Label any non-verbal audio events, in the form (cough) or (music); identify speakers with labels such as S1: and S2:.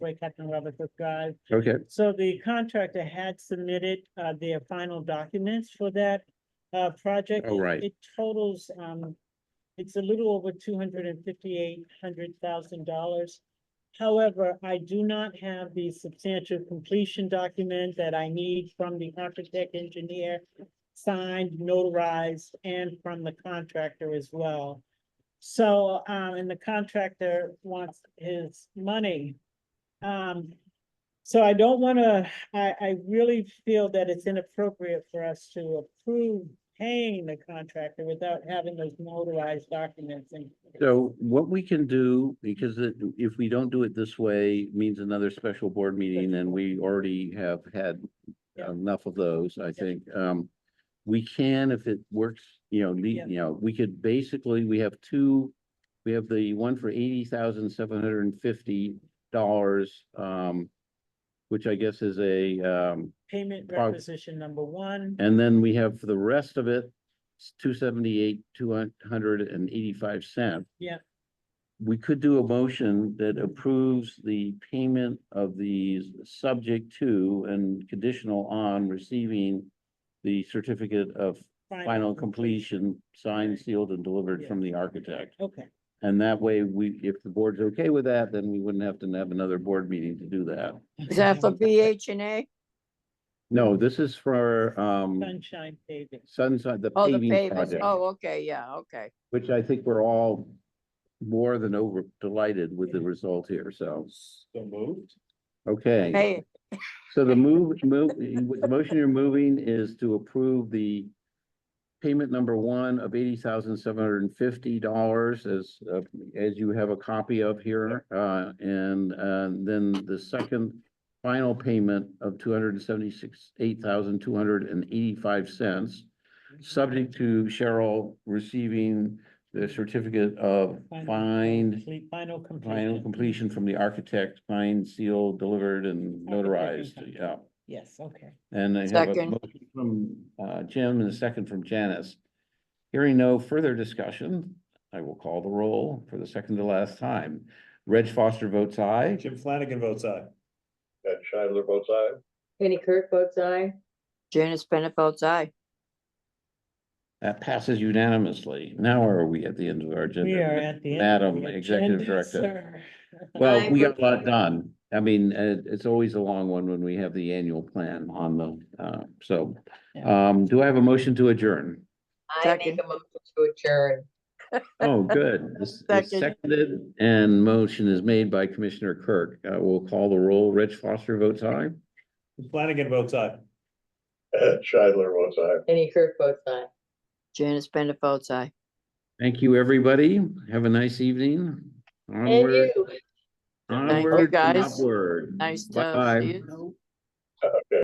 S1: way Captain Roberts described.
S2: Okay,
S1: So the contractor had submitted uh their final documents for that uh project.
S2: Oh, right.
S1: It totals um, it's a little over two hundred and fifty-eight hundred thousand dollars. However, I do not have the substantial completion document that I need from the architect engineer. Signed, notarized, and from the contractor as well. So um, and the contractor wants his money. Um, so I don't wanna, I, I really feel that it's inappropriate for us to approve paying the contractor without having those notarized documents and.
S2: so what we can do, because it- if we don't do it this way, means another special board meeting, and we already have had
S1: Yeah.
S2: enough of those, I think. Um, we can, if it works, you know,
S1: Yeah.
S2: le- you know, we could basically, we have two, we have the one for eighty thousand seven hundred and fifty dollars, um, which I guess is a, um,
S1: Payment
S2: Right.
S1: requisition number one,
S2: And then we have for the rest of it, two seventy-eight, two hundred and eighty-five cent.
S1: Yeah.
S2: We could do a motion that approves the payment of these subject to and conditional on receiving the certificate of final completion, signed, sealed, and delivered from the architect.
S1: Okay,
S2: And that way, we, if the board's okay with that, then we wouldn't have to have another board meeting to do that.
S3: Is that for BH and A?
S2: No, this is for, um,
S1: sunshine paving.
S2: Sunside, the
S3: Oh, the
S2: paving
S3: pavers.
S2: project.
S3: Oh, okay, yeah, okay.
S2: Which I think we're all more than over delighted with the result here, so,
S4: So moved.
S2: okay.
S3: Hey,
S2: So the move, move, the motion you're moving is to approve the payment number one of eighty thousand seven hundred and fifty dollars as, uh, as you have a copy of here. Uh, and, uh, then the second final payment of two hundred and seventy-six, eight thousand two hundred and eighty-five cents subject to Cheryl receiving the certificate of
S1: Final
S2: find,
S1: complete- Final
S2: final
S1: completion.
S2: completion from the architect, signed, sealed, delivered and notarized,
S1: Architect.
S2: yeah.
S1: Yes, okay.
S2: And I have a
S3: Second.
S2: motion from uh Jim and a second from Janice. Hearing no further discussion, I will call the roll for the second to last time. Reg Foster votes aye.
S4: Jim Flanagan votes aye.
S5: Ed Scheidler votes aye.
S6: Jenny Kirk votes aye.
S3: Janice Bennett votes aye.
S2: That passes unanimously. Now are we at the end of our agenda?
S1: We are at the. end of
S2: Madam
S1: the
S2: Executive
S1: agenda, sir.
S2: Director. Well,
S6: I
S2: we got
S6: vote
S2: a lot
S6: aye.
S2: done. I mean, uh, it's always a long one when we have the annual plan on the, uh, so. Um, do I have a motion to adjourn?
S6: I make
S3: Second.
S6: a motion to adjourn. (laughs)
S2: Oh, good. This is
S3: Second.
S2: seconded and motion is made by Commissioner Kirk. Uh, we'll call the roll. Reg Foster votes aye.
S4: Jim Flanagan votes aye.
S5: Ed Scheidler votes aye.
S6: Jenny Kirk votes aye.
S3: Janice Bennett votes aye.
S2: Thank you, everybody. Have a nice evening.
S6: And
S2: Onward,
S6: you.
S3: you,
S2: onward, and
S3: guys.
S2: upward.
S3: Nice to
S2: Bye.
S3: see you.